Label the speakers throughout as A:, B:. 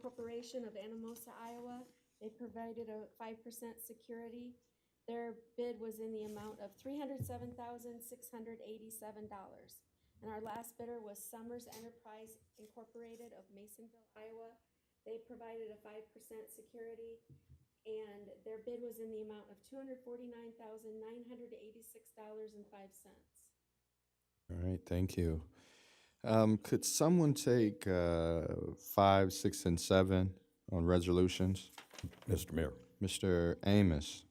A: Corporation of Anamosa, Iowa. They provided a five percent security. Their bid was in the amount of three hundred seven thousand, six hundred eighty-seven dollars. And our last bidder was Summers Enterprise Incorporated of Masonville, Iowa. They provided a five percent security, and their bid was in the amount of two hundred forty-nine thousand, nine hundred eighty-six dollars and five cents.
B: All right, thank you. Um, could someone take, uh, five, six, and seven on resolutions?
C: Mr. Mayor,
B: Mr. Amos,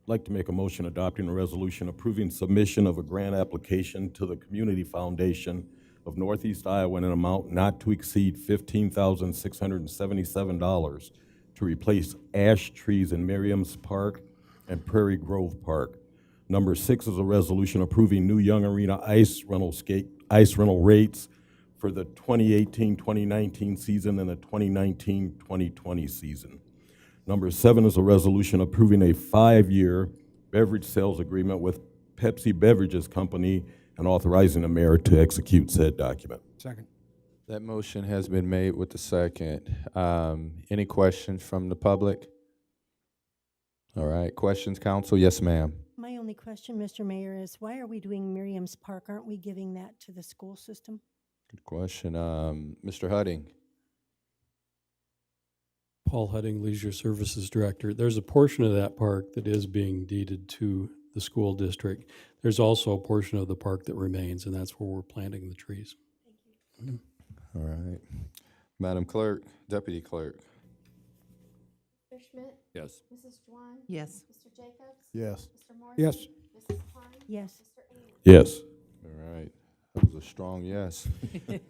C: I'd like to make a motion adopting a resolution approving submission of a grant application to the Community Foundation of Northeast Iowa in an amount not to exceed fifteen thousand six hundred and seventy-seven dollars to replace ash trees in Merriam's Park and Prairie Grove Park. Number six is a resolution approving new Young Arena ice rental skate, ice rental rates for the 2018-2019 season and the 2019-2020 season. Number seven is a resolution approving a five-year beverage sales agreement with Pepsi Beverages Company and authorizing the mayor to execute said document.
D: Second.
B: that motion has been made with the second. Um, any questions from the public? All right, questions, council? Yes, ma'am.
E: My only question, Mr. Mayor, is why are we doing Miriam's Park? Aren't we giving that to the school system?
B: Good question. Um, Mr. Hudding?
F: Paul Hudding, Leisure Services Director. There's a portion of that park that is being deeded to the school district. There's also a portion of the park that remains, and that's where we're planting the trees.
B: All right. Madam Clerk, Deputy Clerk?
A: Mr. Schmidt?
C: Yes.
A: Mrs. Juwan?
G: Yes.
A: Mr. Jacobs?
C: Yes.
A: Mr. Morgan?
D: Yes.
A: Mrs. Klein?
E: Yes.
A: Mr. Amos?
C: Yes.
B: All right, that was a strong yes.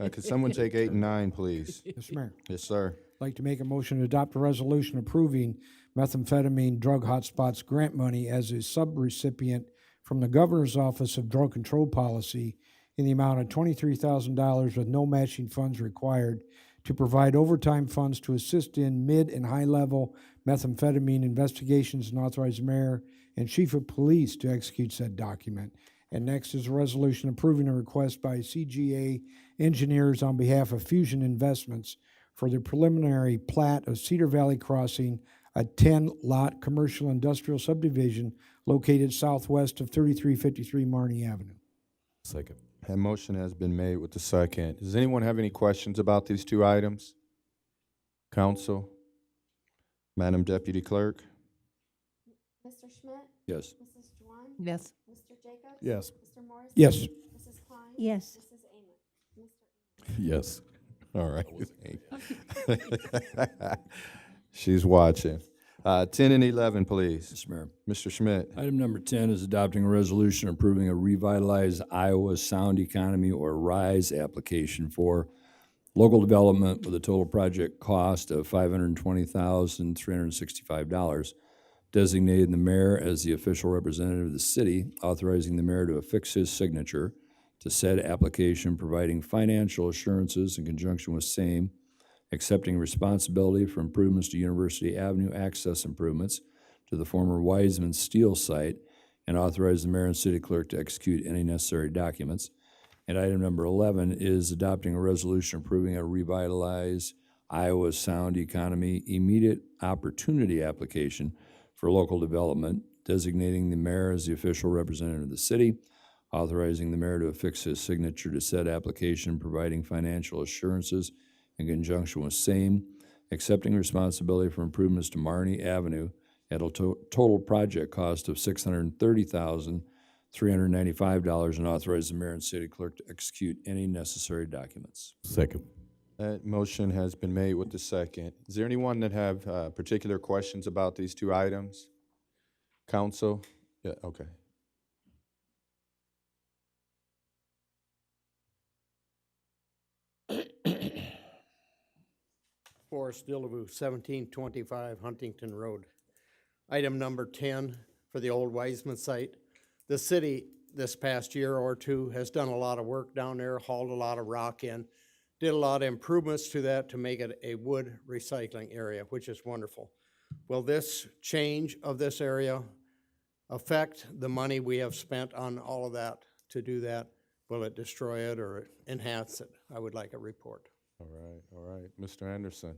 B: Uh, could someone take eight and nine, please?
D: Mr. Mayor, I'd
B: Yes, sir.
D: like to make a motion to adopt a resolution approving methamphetamine drug hotspots grant money as a subrecipient from the Governor's Office of Drug Control Policy in the amount of twenty-three thousand dollars with no matching funds required to provide overtime funds to assist in mid and high-level methamphetamine investigations and authorize the mayor and chief of police to execute said document. And next is a resolution approving a request by CGA engineers on behalf of Fusion Investments for the preliminary plat of Cedar Valley Crossing, a 10-lot commercial industrial subdivision located southwest of 3353 Marnie Avenue.
C: Second.
B: That motion has been made with the second. Does anyone have any questions about these two items? Counsel? Madam Deputy Clerk?
A: Mr. Schmidt?
C: Yes.
A: Mrs. Juwan?
G: Yes.
A: Mr. Jacobs?
C: Yes.
A: Mr. Morrison?
D: Yes.
A: Mrs. Klein?
E: Yes.
A: Mrs. Amos? Mr.
C: Yes.
B: All right. She's watching. Uh, ten and eleven, please.
H: Mr. Mayor.
B: Mr. Schmidt?
H: Item number 10 is adopting a resolution approving a revitalized Iowa Sound Economy or RISE application for local development with a total project cost of $520,365, designating the mayor as the official representative of the city, authorizing the mayor to affix his signature to said application, providing financial assurances in conjunction with same, accepting responsibility for improvements to University Avenue access improvements, to the former Wiseman Steel site and authorize the mayor and city clerk to execute any necessary documents. And item number 11 is adopting a resolution approving a revitalized Iowa Sound Economy Immediate Opportunity Application for local development, designating the mayor as the official representative of the city, authorizing the mayor to affix his signature to said application, providing financial assurances in conjunction with same, accepting responsibility for improvements to Marnie Avenue at a to- total project cost of six hundred and thirty thousand, three hundred and ninety-five dollars and authorize the mayor and city clerk to execute any necessary documents.
C: Second.
B: That motion has been made with the second. Is there anyone that have uh, particular questions about these two items? Counsel? Yeah, okay.
I: Forrest Dillaboo, seventeen twenty-five Huntington Road. Item number ten for the old Wiseman site. The city this past year or two has done a lot of work down there, hauled a lot of rock in, did a lot of improvements to that to make it a wood recycling area, which is wonderful. Will this change of this area affect the money we have spent on all of that to do that? Will it destroy it or enhance it? I would like a report.
B: All right, all right. Mr. Anderson?